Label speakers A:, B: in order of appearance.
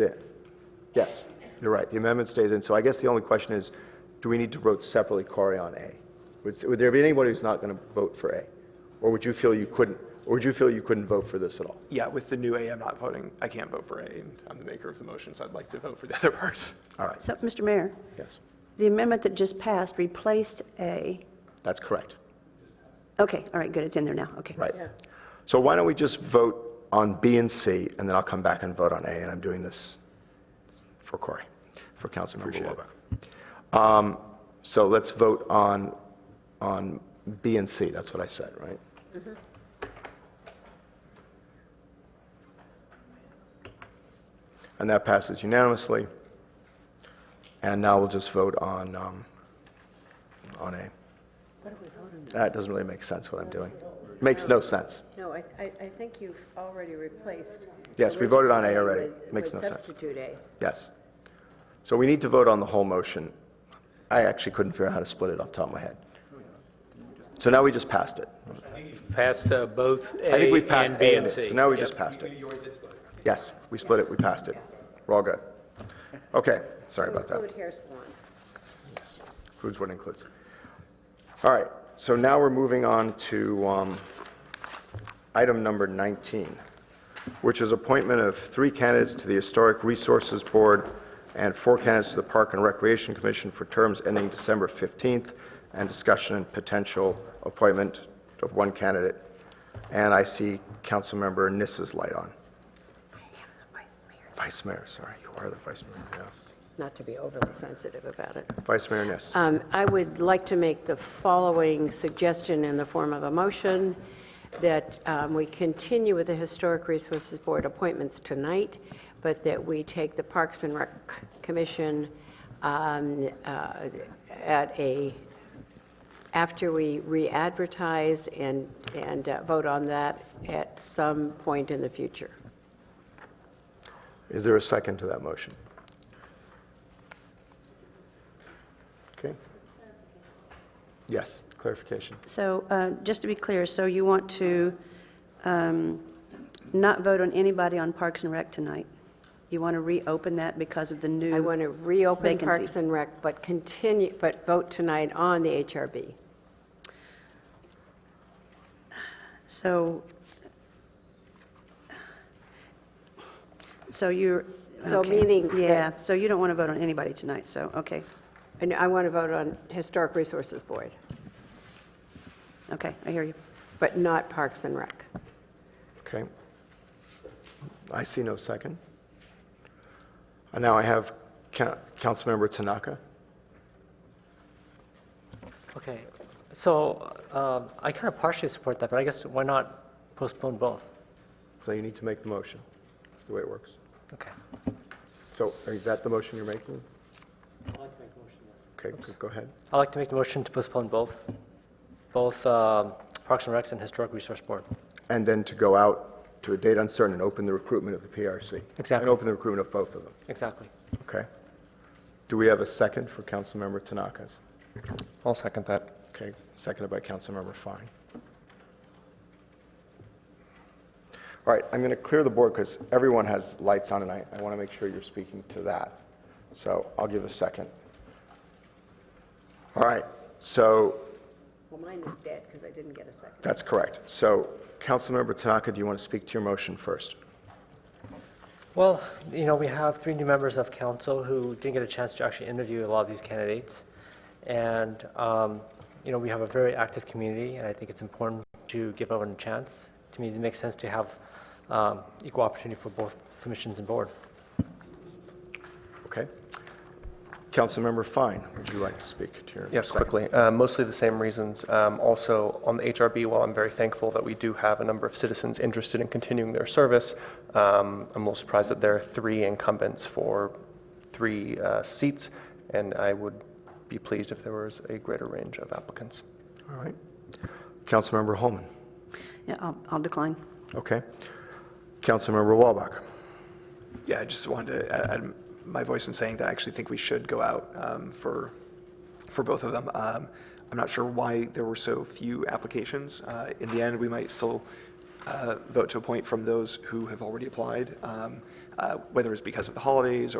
A: it. Yes, you're right. The amendment stays in. So I guess the only question is, do we need to vote separately, Corey, on A? Would, would there be anybody who's not going to vote for A? Or would you feel you couldn't, or would you feel you couldn't vote for this at all?
B: Yeah, with the new A, I'm not voting, I can't vote for A, and I'm the maker of the motion, so I'd like to vote for the other parts.
A: All right,
C: So, Mr. Mayor,
A: yes,
C: the amendment that just passed replaced A,
A: that's correct.
C: okay, all right, good, it's in there now, okay.
A: Right. So why don't we just vote on B and C, and then I'll come back and vote on A, and I'm doing this for Corey, for Councilmember Lobo. Um, So let's vote on, on B and C, that's what I said, right? Mm-hmm. And that passes unanimously. And now we'll just vote on, um, on A. That doesn't really make sense what I'm doing. Makes no sense.
D: No, I, I I think you've already replaced.
A: Yes, we voted on A
D: original
A: already.
D: with-
A: Makes
D: with
A: no sense.
D: substitute A.
A: Yes. So we need to vote on the whole motion. I actually couldn't figure out how to split it off the top of my head. So now we just passed it.
E: Passed uh, both A
A: I think we've passed
E: and
A: A
E: B and C.
A: Now we just passed it. Yes, we split it, we passed it. We're all good. Okay, sorry about that.
D: Include hair salons.
A: Includes what includes. All right, so now we're moving on to um, item number 19, which is appointment of three candidates to the Historic Resources Board and four candidates to the Park and Recreation Commission for terms ending December 15th, and discussion and potential appointment of one candidate. And I see Councilmember Nissa's light on. Vice Mayor, sorry, you are the Vice Mayor, yes.
D: Not to be overly sensitive about it.
A: Vice Mayor Niss.
D: Um, I would like to make the following suggestion in the form of a motion, that um, we continue with the Historic Resources Board appointments tonight, but that we take the Parks and Rec Commission um, uh, at a, after we re-advertise and, and uh, vote on that at some point in the future.
A: Is there a second to that motion? Okay. Yes, clarification.
C: So, uh, just to be clear, so you want to um, not vote on anybody on Parks and Rec tonight? You want to reopen that because of the new?
D: I want to reopen
C: Vacancy.
D: Parks and Rec, but continue, but vote tonight on the HRB.
C: So, so you're.
D: So
C: okay.
D: meaning that-
C: Yeah, so you don't want to vote on anybody tonight, so, okay,
D: And I want to vote on Historic Resources Board,
C: okay, I hear you.
D: but not Parks and Rec.
A: Okay. I see no second. And now I have Ca- Councilmember Tanaka.
F: Okay, so um, I kind of partially support that, but I guess why not postpone both?
A: So you need to make the motion. That's the way it works.
F: Okay.
A: So is that the motion you're making? I'd like to make a motion, yes. Okay, go- go ahead.
F: I'd like to make the motion to postpone both, both um, Parks and Recs and Historic Resource Board.
A: And then to go out to a date uncertain and open the recruitment of the PRC. And
F: Exactly.
A: open the recruitment of both of them.
F: Exactly.
A: Okay. Do we have a second for Councilmember Tanaka's?
G: I'll second that.
A: Okay, seconded by Councilmember Fine. All right, I'm going to clear the board because everyone has lights on and I, I want to make sure you're speaking to that. So I'll give a second. All right, so
D: Well, mine is dead because I didn't get a second.
A: that's correct. So Councilmember Tanaka, do you want to speak to your motion first?
F: Well, you know, we have three new members of council who didn't get a chance to actually interview a lot of these candidates. And, um, you know, we have a very active community, and I think it's important to give everyone a chance. To me, it makes sense to have um, equal opportunity for both commissions and board.
A: Okay. Councilmember Fine, would you like to speak to your?
G: Yes,
A: second?
G: quickly. Uh, Mostly the same reasons. Um, Also, on the HRB, while I'm very thankful that we do have a number of citizens interested in continuing their service, um, I'm a little surprised that there are three incumbents for three uh, seats, and I would be pleased if there was a greater range of applicants.
A: All right. Councilmember Holman.
C: Yeah, I'll, I'll decline.
A: Okay. Councilmember Walbach.
B: Yeah, I just wanted to add- add my voice in saying that I actually think we should go out um, for, for both of them. Um, I'm not sure why there were so few applications. Uh, In the end, we might still, uh, vote to appoint from those who have already applied, um, uh, whether it's because of the holidays or